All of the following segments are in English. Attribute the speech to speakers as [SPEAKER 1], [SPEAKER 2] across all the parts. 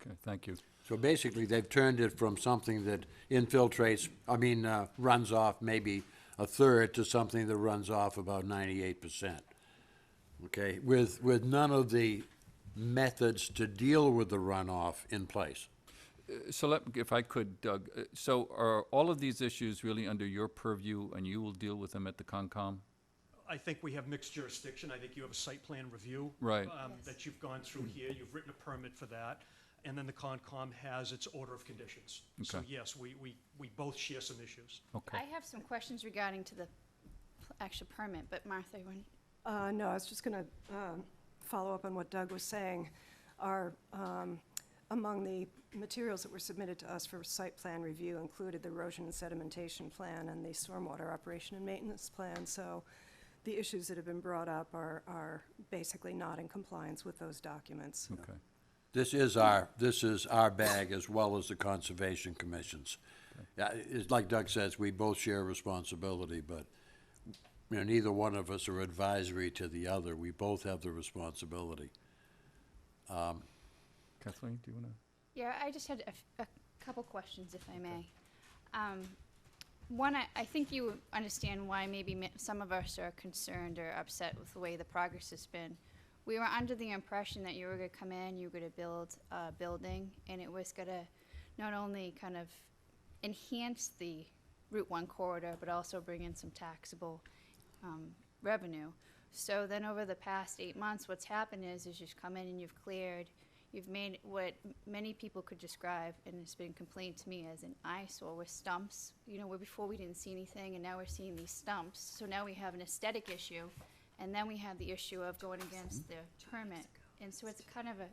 [SPEAKER 1] Okay, thank you.
[SPEAKER 2] So basically, they've turned it from something that infiltrates, I mean, uh, runs off maybe a third to something that runs off about ninety-eight percent. Okay, with, with none of the methods to deal with the runoff in place.
[SPEAKER 1] So let, if I could, Doug, uh, so are all of these issues really under your purview and you will deal with them at the Concom?
[SPEAKER 3] I think we have mixed jurisdiction. I think you have a site plan review.
[SPEAKER 1] Right.
[SPEAKER 3] um, That you've gone through here. You've written a permit for that. And then the Concom has its order of conditions. So
[SPEAKER 1] Okay.
[SPEAKER 3] yes, we, we, we both share some issues.
[SPEAKER 1] Okay.
[SPEAKER 4] I have some questions regarding to the pl- actual permit, but Martha, you want-
[SPEAKER 5] Uh, No, I was just going to follow up on what Doug was saying. Are, um, among the materials that were submitted to us for site plan review included the erosion and sedimentation plan and the stormwater operation and maintenance plan. So the issues that have been brought up are, are basically not in compliance with those documents.
[SPEAKER 1] Okay.
[SPEAKER 2] This is our, this is our bag as well as the Conservation Commission's. Yeah, it's like Doug says, we both share responsibility, but, you know, neither one of us are advisory to the other. We both have the responsibility.
[SPEAKER 1] Kathleen, do you want to?
[SPEAKER 4] yeah, I just had a, f- a couple questions, if I may. Um, One, I, I think you understand why maybe mi- some of us are concerned or upset with the way the progress has been. We were under the impression that you were gonna come in, you were gonna build a building, and it was gonna not only kind of enhance the Route One corridor, but also bring in some taxable um, revenue. So then over the past eight months, what's happened is, is you've come in and you've cleared, you've made what m- many people could describe, and it's been complained to me as an eyesore with stumps. You know, where before we didn't see anything, and now we're seeing these stumps. So now we have an aesthetic issue, and then we have the issue of going against the permit. And so it's kind of a,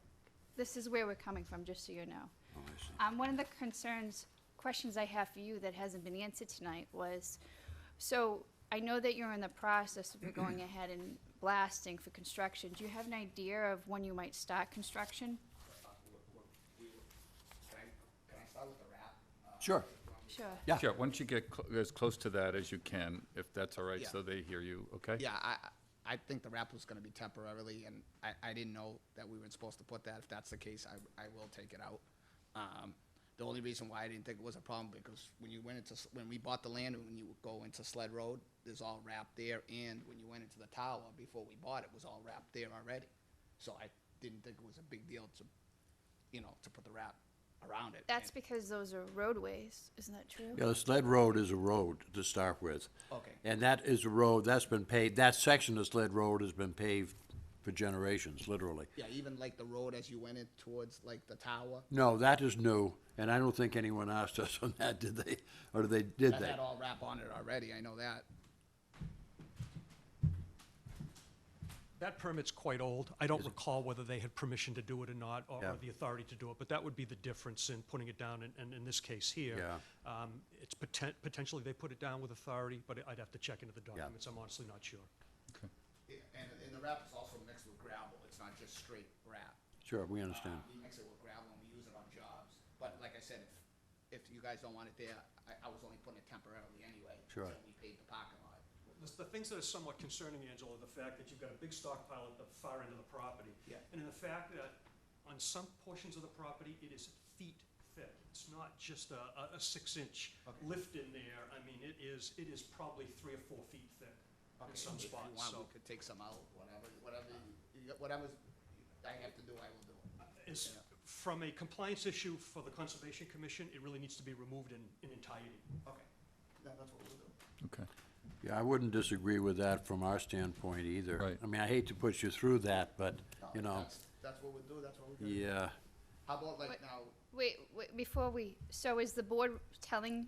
[SPEAKER 4] this is where we're coming from, just so you know. Um, one of the concerns, questions I have for you that hasn't been answered tonight was, so I know that you're in the process of going ahead and blasting for construction. Do you have an idea of when you might start construction?
[SPEAKER 2] Sure.
[SPEAKER 4] Sure.
[SPEAKER 2] Yeah.
[SPEAKER 1] Sure, why don't you get cl- as close to that as you can, if that's all right,
[SPEAKER 6] Yeah.
[SPEAKER 1] so they hear you, okay?
[SPEAKER 6] Yeah, I, I I think the wrap was gonna be temporarily, and I, I didn't know that we weren't supposed to put that. If that's the case, I, I will take it out. Um, the only reason why I didn't think it was a problem, because when you went into, S- when we bought the land, and when you go into Sled Road, there's all wrap there, and when you went into the tower before we bought it, was all wrap there already. So I didn't think it was a big deal to, you know, to put the wrap around it.
[SPEAKER 4] That's
[SPEAKER 6] And-
[SPEAKER 4] because those are roadways, isn't that true?
[SPEAKER 2] Yeah, the Sled Road is a road to start with.
[SPEAKER 6] Okay.
[SPEAKER 2] And that is a road, that's been paved, that section of Sled Road has been paved for generations, literally.
[SPEAKER 6] Yeah, even like the road as you went in towards like the tower,
[SPEAKER 2] No, that is new, and I don't think anyone asked us on that, did they? Or did they, did
[SPEAKER 6] that
[SPEAKER 2] they?
[SPEAKER 6] had all wrap on it already, I know that.
[SPEAKER 3] That permit's quite old. I don't recall whether they had permission to do it or not, or or
[SPEAKER 2] Yeah.
[SPEAKER 3] the authority to do it, but that would be the difference in putting it down, and- and in this case here.
[SPEAKER 2] Yeah.
[SPEAKER 3] um, It's poten- potentially they put it down with authority, but I'd have to check into the documents. I'm honestly not sure.
[SPEAKER 6] Yeah, and, and the wrap is also mixed with gravel, it's not just straight wrap.
[SPEAKER 2] Sure, we
[SPEAKER 6] Uh,
[SPEAKER 2] understand.
[SPEAKER 6] We mix it with gravel and we use it on jobs, but like I said, if, if you guys don't want it there, I, I was only putting it temporarily anyway.
[SPEAKER 2] Sure.
[SPEAKER 6] Until we paid the parking lot.
[SPEAKER 3] The- The things that are somewhat concerning, Angela, are the fact that you've got a big stockpile at the far end of the property.
[SPEAKER 6] Yeah.
[SPEAKER 3] And in the fact that on some portions of the property, it is feet thick. It's not just a, a, a six-inch
[SPEAKER 6] Okay.
[SPEAKER 3] lift in there. I mean, it is, it is probably three or four feet thick in some
[SPEAKER 6] If you
[SPEAKER 3] spots,
[SPEAKER 6] want,
[SPEAKER 3] so.
[SPEAKER 6] we could take some out, whatever, whatever, you- you- whatever's, I have to do, I will do it.
[SPEAKER 3] It's, from a compliance issue for the Conservation Commission, it really needs to be removed in, in entirety.
[SPEAKER 6] Okay, that, that's what we'll do.
[SPEAKER 1] Okay,
[SPEAKER 2] Yeah, I wouldn't disagree with that from our standpoint either.
[SPEAKER 1] Right.
[SPEAKER 2] I mean, I hate to put you through that, but,
[SPEAKER 6] No,
[SPEAKER 2] you know,
[SPEAKER 6] that's- That's what we'll do, that's what we're gonna do.
[SPEAKER 2] yeah,
[SPEAKER 6] How about like
[SPEAKER 4] What-
[SPEAKER 6] now,
[SPEAKER 4] Wait, wait, before we, so is the board telling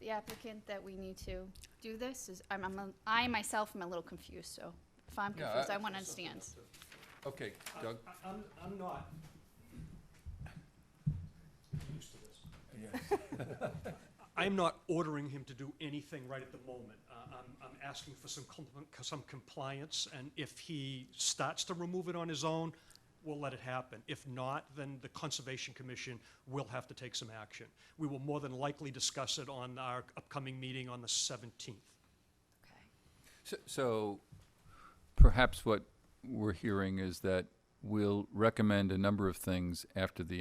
[SPEAKER 4] the applicant that we need to do this? Is, I'm, I'm, a- I myself am a little confused, so if I'm
[SPEAKER 1] Yeah, I-
[SPEAKER 4] confused, I want to understand.
[SPEAKER 1] okay, Doug?
[SPEAKER 3] I- I'm, I'm not. Used to this. I'm not ordering him to do anything right at the moment. Uh, I'm, I'm asking for some compli- some compliance, and if he starts to remove it on his own, we'll let it happen. If not, then the Conservation Commission will have to take some action. We will more than likely discuss it on our upcoming meeting on the seventeenth.
[SPEAKER 4] Okay.
[SPEAKER 1] So- So perhaps what we're hearing is that we'll recommend a number of things after the